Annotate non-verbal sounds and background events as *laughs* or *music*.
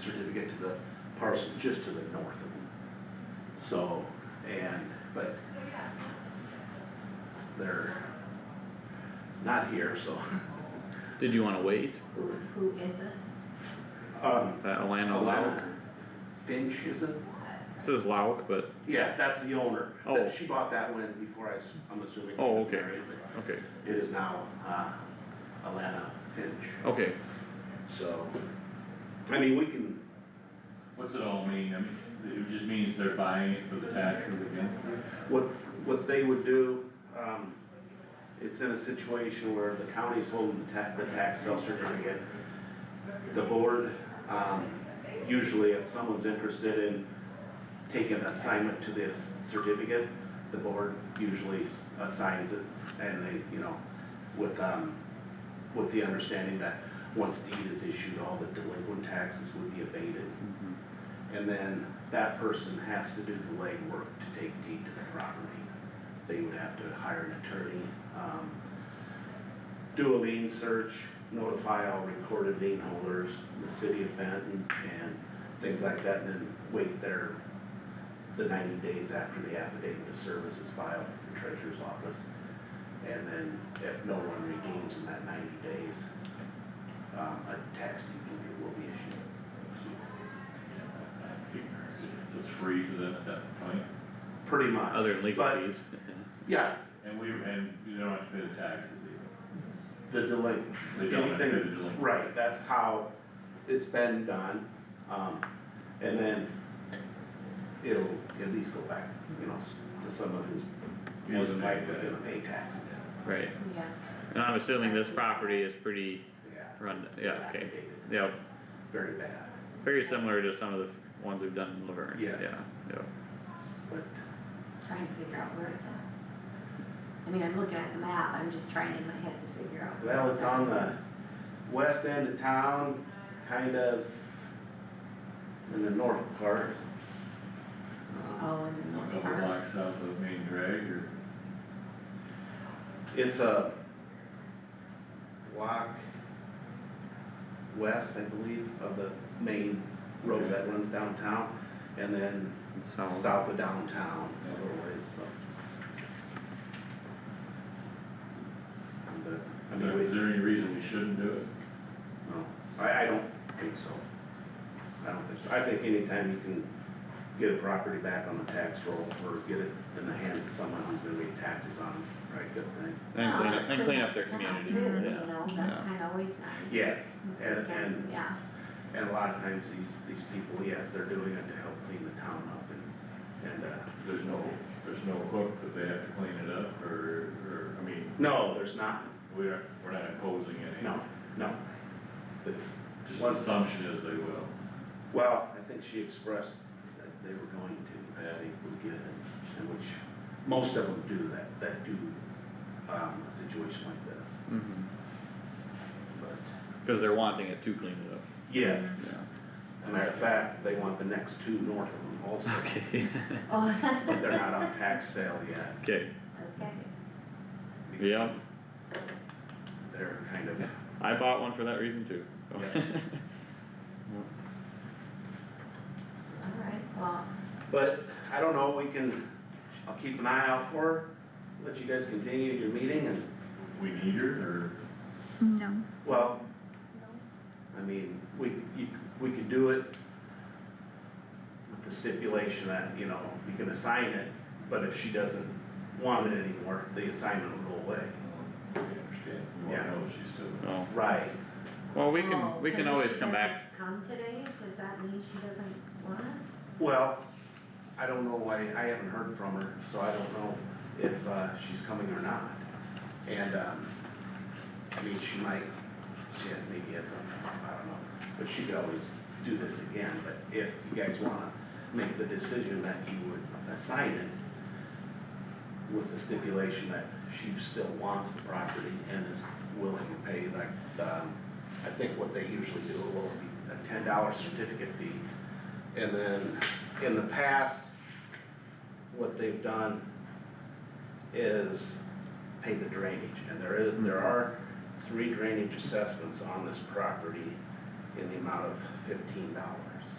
certificate to the parcel just to the north of them. So, and, but they're not here, so. Did you wanna wait? Who, who is it? Um, That Alana Lauk? Finch, is it? It Says Lauk, but, Yeah, that's the owner. That- Oh. She bought that one before I, s- I'm assuming she Oh, was okay. married, but okay, it is now, uh, Alana Finch, okay. so. I mean, we can, What's it all mean? I mean, it just means they're buying it for the taxes against it? What, what they would do, um, it's in a situation where the county's holding the tax, the tax sale certificate. The board, um, usually if someone's interested in taking assignment to this certificate, the board usually s- assigns it and they, you know, with, um, with the understanding that once deed is issued, all the delinquent taxes would be abated. And then that person has to do the legwork to take deed to the property. They would have to hire an attorney, um, do a lien search, notify all recorded lien holders, the city of Fenton, and things like that, and then wait their, the ninety days after the affidavit of service is filed with the treasurer's office. And then if no one redeems in that ninety days, um, a tax deed can be- will be issued. It's free to them at that point. Pretty much. Other than legal But- fees. Yeah, And we, and you don't have to pay the taxes either. the delay, They don't have to pay the anything, delinquent. right, that's how it's been done. Um, and then it'll at least go back, you know, s- to someone who's Yeah, most likely yeah. gonna pay taxes. Right, Yeah. and I'm assuming this property is pretty, Yeah. Run- it's yeah, okay. dilapidated, yeah, Very bad, very similar to some of the ones we've done in Laverne. Yes. Yeah, yeah. but Trying to figure out where it's at. I mean, I'm looking at the map, I'm just trying in my head to figure out. where Well, it's at. on the west end of town, kind of in the north part. Um, Oh, in the A north couple part. blocks south of Main Drag or, It's a block west, I believe, of the main road that runs downtown, and then So, south of downtown, a little ways, so. But, I mean, is we, there any reason we shouldn't do it? no, I, I don't think so. I don't think so, I think anytime you can get a property back on the tax roll, or get it in the hands of someone who's gonna be taxes on, it's a pretty good thing. and clean up, and clean up their Town community, too, you yeah, know, yeah. that's kinda always nice. Yes, If we and- can, and- Yeah, *laughs* And a lot of times these, these people, yes, they're doing it to help clean the town up and, and, uh, There's no, there's no hook that they have to clean it up or, or, I mean, no, there's not, we are, we're not imposing any. no, no. It's, Just the Once- assumption is they will. well, I think she expressed that they were going to, that they would get it, and which, most of them do that, that do, um, a situation like this, Mhm. but. Cause they're wanting it to clean it up, Yes. yeah, As a matter of fact, they want the next two north of them also, *laughs* okay, oh, *laughs* but they're not on tax sale yet. okay, okay, because yeah, They're kind of, I bought one for that reason too. *laughs* Yeah. alright, well, But I don't know, we can, I'll keep an eye out for her, let you guys continue your meeting and, We need her No. well, I mean, we, you, we could do it with the stipulation that, you know, you can assign it, but if she doesn't want it anymore, the assignment will go away. or, we understand, we Yeah. wanna know if she's still. Oh, Right. well, we Oh, can, we 'cause can if always she come back doesn't Come today, does that mean she doesn't want it? Well, I don't know why, I haven't heard from her, so I don't know if, uh, she's coming or not. And, um, I mean, she might, she had, maybe had something, I don't know, but she could always do this again, but if you guys wanna make the decision that you would assign it with the stipulation that she still wants the property and is willing to pay, like, um, I think what they usually do will be a ten dollar certificate fee and then in the past, what they've done is pay the drainage. And there is, there are three drainage assessments on this property in the amount of fifteen dollars.